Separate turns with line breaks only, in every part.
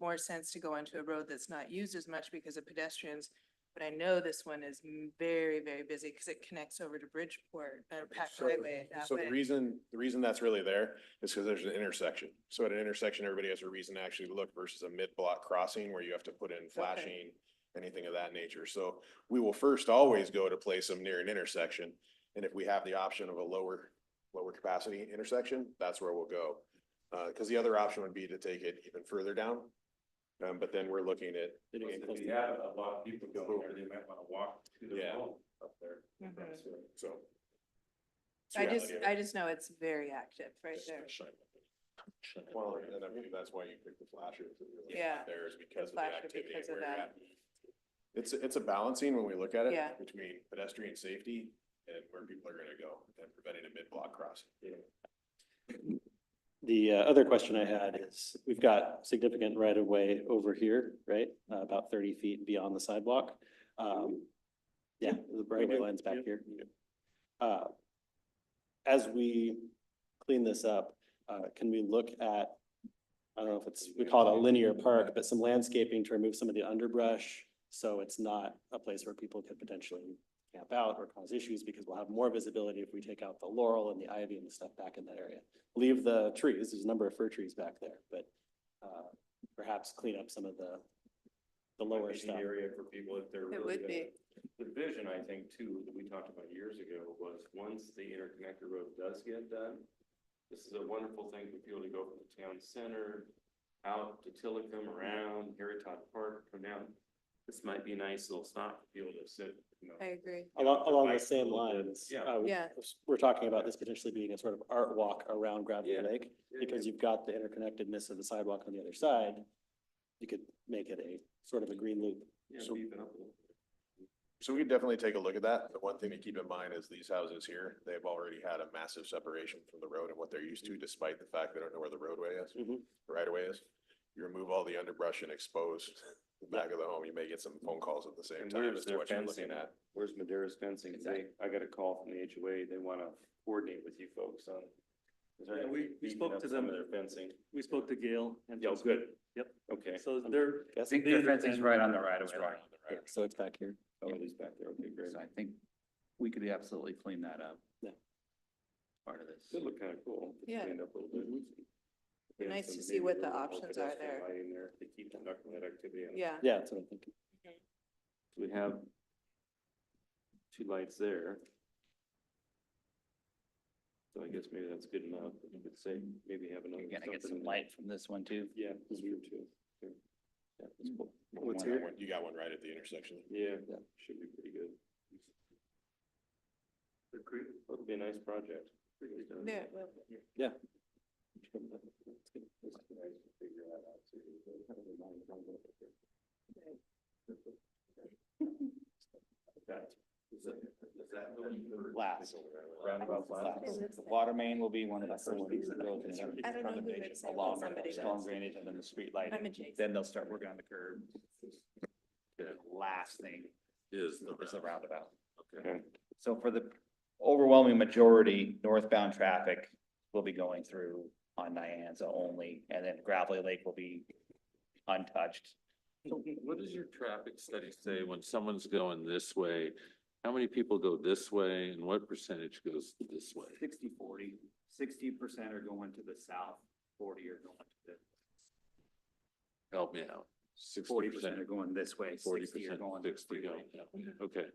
more sense to go onto a road that's not used as much because of pedestrians. But I know this one is m- very, very busy because it connects over to Bridgeport, uh, Pack
So-
Highway that
So the
way.
reason, the reason that's really there is because there's an intersection. So at an intersection, everybody has a reason to actually look versus a mid-block crossing where you have to put in flashing, anything of that nature. So we will first always go to place them near an intersection. And if we have the option of a lower, lower capacity intersection, that's where we'll go. Uh, because the other option would be to take it even further down. Um, but then we're looking at,
It is
If
close
you
to-
have a lot of people going there, they might wanna walk to the
Yeah.
road up there.
Mhm.
so. it's
I just,
reality of it.
I just know it's very active right there.
Well, and I mean, that's why you pick the flashers. that you're looking
Yeah,
at There is because of the
flasher
activity
because
where
of
you're
that.
at. It's, it's a balancing when we look at it.
Yeah.
Between pedestrian safety and where people are gonna go and preventing a mid-block crossing.
The uh, other question I had is, we've got significant right of way over here, right? Uh, About thirty feet beyond the sidewalk. Um, Yeah, the right of way line's back here. Uh, As we clean this up, uh, can we look at, I don't know if it's, we call it a linear park, but some landscaping to remove some of the underbrush? So it's not a place where people could potentially camp out or cause issues because we'll have more visibility if we take out the laurel and the ivy and the stuff back in that area leave the trees, there's a number of fir trees back there, but uh, perhaps clean up some of the, the
Might
lower
be an
stuff.
Area for people if they're.
It
really
would be.
gonna- The vision, I think, too, that we talked about years ago was once the interconnector road does get done, this is a wonderful thing for people to go from the town center out to Tillicum, around Heritot Park, come down. This might be a nice little stop for people to sit, you know.
I agree.
Along, along the
Like,
same
little bit,
lines.
yeah.
uh,
Yeah.
We're talking about this potentially being a sort of art walk around Gravity
Yeah.
Lake, because you've got the interconnectedness of the sidewalk on the other side. You could make it a sort of a green loop.
Yeah,
So-
beef it up a little.
So we could definitely take a look at that. The one thing to keep in mind is these houses here, they've already had a massive separation from the road and what they're used to despite the fact they don't know where the roadway is,
Mm-hmm.
Mhm.
the right away is. You remove all the underbrush and expose the back of the home, you may get some phone calls at the same
And
time
where's
as to
their
what you're looking
fencing?
at.
Where's Madera's fencing? They, I got a call from the HOA. They want to coordinate with you folks on. is there
Yeah,
any
we- we
beefing
spoke
up
to
some of
them.
Their fencing.
We spoke to Gail and.
Yeah, good.
Yep.
Okay.
So they're,
Guess,
think their fencing's right
on the right
of way line.
yeah, so it's back here.
Oh, it is back there. Okay, great.
so I think we could absolutely clean that up.
Yeah.
Part of this.
It looked kind of cool. It
Yeah.
cleaned up a little
Mm-hmm.
bit.
Be
And
nice to
some
see what the
maybe a little
options are
pedestrian
there.
lighting there. They keep conducting that activity. on-
Yeah.
Yeah, that's what I'm thinking.
We have two lights there. So I guess maybe that's good enough. You could say maybe have another.
You're gonna get
something
some
in there.
light from this one too.
Yeah, it's true too. Yeah, Yeah, that's cool.
What's
You got
here?
one- You got one right at the intersection.
Yeah,
Yeah.
should be pretty good. It'll be a nice project.
There, it will be.
Last.
Roundabout last.
The Water main will be one of the
That's the
first
one.
pieces of building.
I don't know who it is.
Along
Somebody
with storm
does.
drainage and then the street lighting.
I'm adjacent.
Then they'll start working on the curb. The last thing
Is
is the roundabout.
Okay.
So for the overwhelming majority, northbound traffic will be going through on Nyanza only, and then Gravelly Lake will be untouched.
So What does your traffic study say when someone's going this way? How many people go this way and what percentage goes this way?
60 40. Sixty percent are going to the south, forty are going to
Help me out.
the,
Sixty
forty percent are going this way,
Forty
sixty are
percent,
going to the
sixty go.
freeway.
yeah. Okay,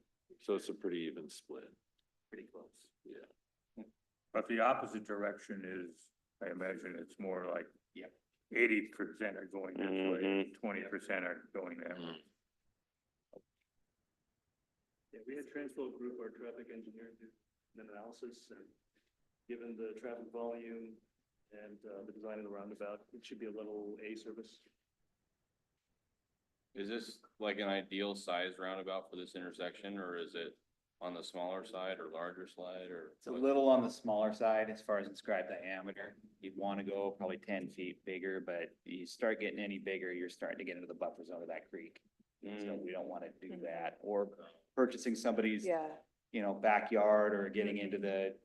so it's a pretty even split.
Pretty close.
Yeah.
But the opposite direction is, I imagine it's more like.
Yep.
Eighty percent are going this
Mm-hmm.
way,
Mhm.
twenty percent are going that way.
Yeah, we had Transworld Group, our traffic engineer, do an analysis and given the traffic volume and uh, the design of the roundabout, it should be a level A service.
Is this like an ideal size roundabout for this intersection, or is it on the smaller side or larger side, or?
It's a little on the smaller side as far as inscribed diameter. You'd want to go probably ten feet bigger, but you start getting any bigger, you're starting to get into the buffer zone of that creek. So
Mm.
we don't want to do
Mhm.
that, or purchasing somebody's,
Yeah,
you know, backyard or getting into the,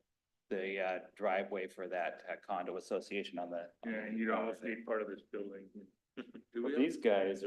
the uh, driveway for that uh, condo association on the.
Yeah, you'd almost need part of this building
Do we
But
have-
These guys